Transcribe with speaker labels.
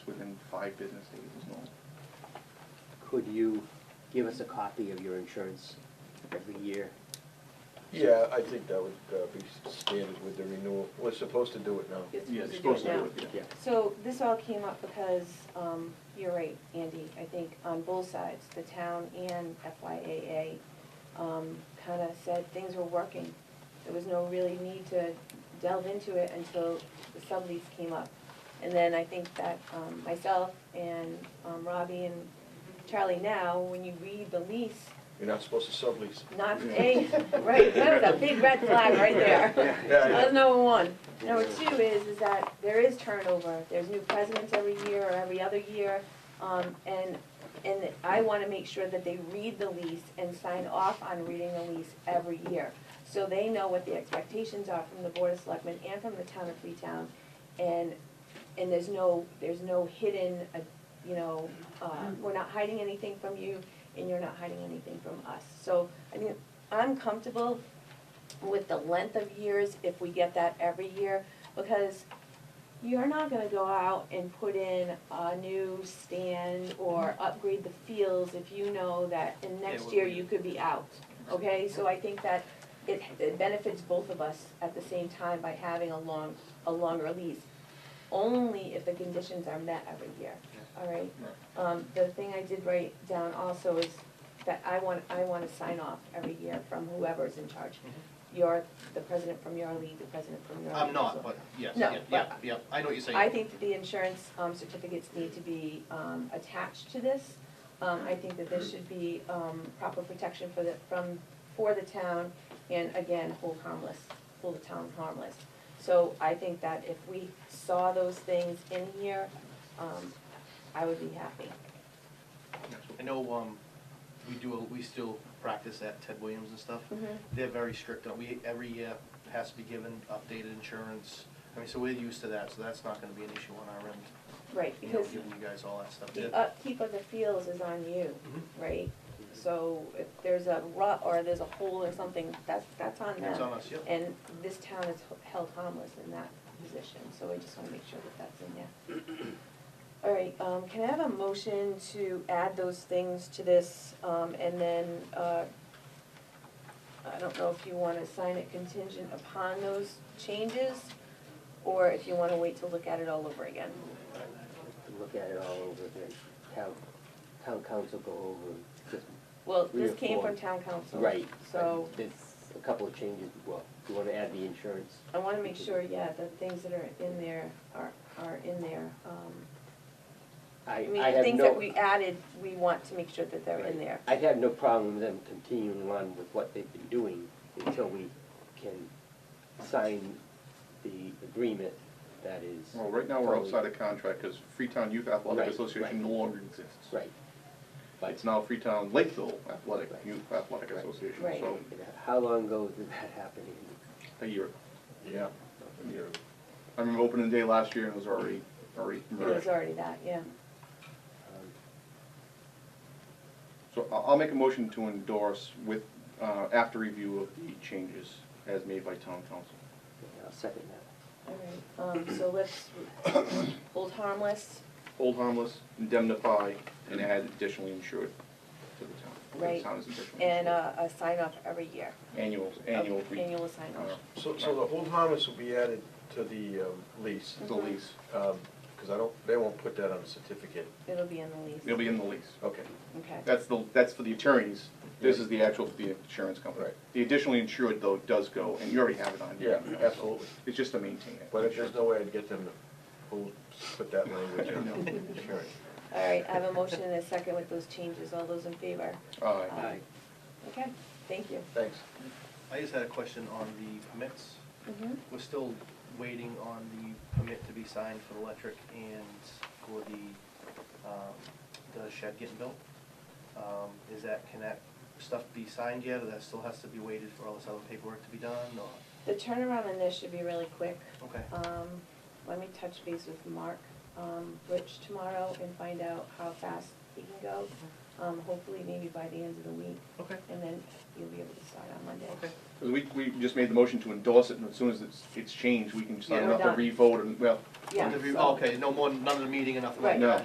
Speaker 1: five business days is normal.
Speaker 2: Could you give us a copy of your insurance every year?
Speaker 3: Yeah, I think that would uh, be standard with the renewal. We're supposed to do it now.
Speaker 1: Yeah, they're supposed to do it, yeah.
Speaker 4: So this all came up because, um, you're right, Andy, I think on both sides, the town and FYAA, um, kinda said things were working. There was no really need to delve into it until the sublease came up. And then I think that, um, myself and, um, Robbie and Charlie now, when you read the lease,
Speaker 3: You're not supposed to sublease.
Speaker 4: not a, right, that was a big red flag right there.
Speaker 3: Yeah, yeah.
Speaker 4: That's number one. Number two is, is that there is turnover, there's new presidents every year or every other year. Um, and, and I wanna make sure that they read the lease and sign off on reading the lease every year. So they know what the expectations are from the Board of Selectmen and from the town of Freetown. And, and there's no, there's no hidden, uh, you know, uh, we're not hiding anything from you and you're not hiding anything from us. So, I mean, I'm comfortable with the length of years if we get that every year, because you're not gonna go out and put in a new stand or upgrade the fields if you know that in next
Speaker 1: would
Speaker 4: year
Speaker 1: be-
Speaker 4: you could be out, okay? So I think that it, it benefits both of us at the same time by having a long, a longer lease, only if the conditions are met every year, all right? Um, the thing I did write down also is that I want, I wanna sign off every year from whoever's in charge. You're the president from your league, the president from your league.
Speaker 5: Mm-hmm. I'm
Speaker 4: so-
Speaker 5: not, but yes,
Speaker 4: No,
Speaker 5: yeah, yeah,
Speaker 4: but-
Speaker 5: yeah, I know what you're saying.
Speaker 4: I think that the insurance um, certificates need to be um, attached to this. Um, I think that there should be um, proper protection for the, from, for the town, and again, hold harmless, hold the town harmless. So I think that if we saw those things in here, um, I would be happy.
Speaker 5: I know, um, we do, we still practice at Ted Williams and stuff.
Speaker 4: Mm-hmm.
Speaker 5: They're very strict on, we, every year has to be given updated insurance. I mean, so we're used to that, so that's not gonna be an issue on our end,
Speaker 4: Right,
Speaker 5: you know,
Speaker 4: because
Speaker 5: giving you guys all that stuff.
Speaker 4: the
Speaker 5: Yeah.
Speaker 4: upkeep of the fields is on you,
Speaker 5: Mhm.
Speaker 4: right? So if there's a rut or there's a hole or something, that's, that's on them.
Speaker 5: It's on us, yeah.
Speaker 4: And this town is h- held harmless in that position, so I just wanna make sure that that's in there. All right, um, can I have a motion to add those things to this, um, and then, uh, I don't know if you wanna sign it contingent upon those changes, or if you wanna wait to look at it all over again.
Speaker 2: Look at it all over again, town, town council go over, just,
Speaker 4: Well,
Speaker 2: Three
Speaker 4: this
Speaker 2: or
Speaker 4: came
Speaker 2: four.
Speaker 4: from town council.
Speaker 2: right.
Speaker 4: So,
Speaker 2: There's a couple of changes, well, you wanna add the insurance?
Speaker 4: I wanna make sure, yeah, the things that are in there are, are in there, um,
Speaker 2: I,
Speaker 4: I
Speaker 2: I
Speaker 4: mean,
Speaker 2: have
Speaker 4: things
Speaker 2: no-
Speaker 4: that we added, we want to make sure that they're in there.
Speaker 2: I have no problem with them continuing on with what they've been doing until we can sign the agreement that is.
Speaker 1: Well, right now, we're outside of contract, because Freetown Youth Athletic
Speaker 2: Right,
Speaker 1: Association
Speaker 2: right.
Speaker 1: no longer exists.
Speaker 2: Right.
Speaker 1: It's now Freetown Lakeville Athletic,
Speaker 2: Right.
Speaker 1: Youth Athletic
Speaker 2: Right.
Speaker 1: Association,
Speaker 4: Right.
Speaker 1: so,
Speaker 2: How long ago did that happen? Andy?
Speaker 1: a year,
Speaker 3: Yeah.
Speaker 1: a year. I remember opening day last year, and it was already, already
Speaker 4: It was
Speaker 1: merged.
Speaker 4: already that, yeah.
Speaker 2: Um,
Speaker 1: So I'll, I'll make a motion to endorse with, uh, after review of the changes as made by town council.
Speaker 2: yeah, I'll second that.
Speaker 4: All right, um, so let's hold harmless,
Speaker 1: Hold harmless, indemnify, and add additionally insured to the town. The
Speaker 4: Right.
Speaker 1: town is additionally
Speaker 4: and uh,
Speaker 1: insured.
Speaker 4: a, a sign off every year.
Speaker 1: Annual, annual. re-
Speaker 4: Annual sign
Speaker 1: uh,
Speaker 4: off.
Speaker 3: So, so the hold harmless will be added to the um, lease,
Speaker 1: The lease,
Speaker 3: because I don't, they won't put that on the certificate.
Speaker 4: It'll be in the lease.
Speaker 1: it'll be in the lease.
Speaker 3: Okay.
Speaker 4: Okay,
Speaker 1: That's the, that's for the attorneys, this is the actual for the insurance company.
Speaker 3: Right.
Speaker 1: The additionally insured though does go, and you already have it on
Speaker 3: Yeah,
Speaker 1: here. you know, so
Speaker 3: absolutely.
Speaker 1: It's just to maintain it.
Speaker 3: But if there's no way I'd get them to hold, put that language in. Sure.
Speaker 4: all right, I have a motion and a second with those changes, all those in favor?
Speaker 1: Aye.
Speaker 2: Aye.
Speaker 4: Okay, thank you.
Speaker 3: Thanks.
Speaker 5: I just had a question on the permits.
Speaker 4: Mhm.
Speaker 5: We're still waiting on the permit to be signed for the electric and for the, um, the shed getting built. Um, is that, can that stuff be signed yet, or that still has to be waited for all this other paperwork to be done, or,
Speaker 4: The turnaround on this should be really quick.
Speaker 5: okay?
Speaker 4: Um, let me touch base with Mark, um, Rich tomorrow and find out how fast he can go. Um, hopefully maybe by the end of the week,
Speaker 5: Okay,
Speaker 4: and then you'll be able to start on Monday.
Speaker 5: okay.
Speaker 1: 'Cause we, we just made the motion to endorse it, and as soon as it's, it's changed, we can
Speaker 5: Yeah,
Speaker 1: sign
Speaker 4: we're
Speaker 1: up and
Speaker 4: done.
Speaker 1: re-vote, and, well,
Speaker 4: Yeah,
Speaker 5: Interview-
Speaker 4: so-
Speaker 5: Okay, no more, none of the meeting, enough of that.
Speaker 4: Right.
Speaker 1: no.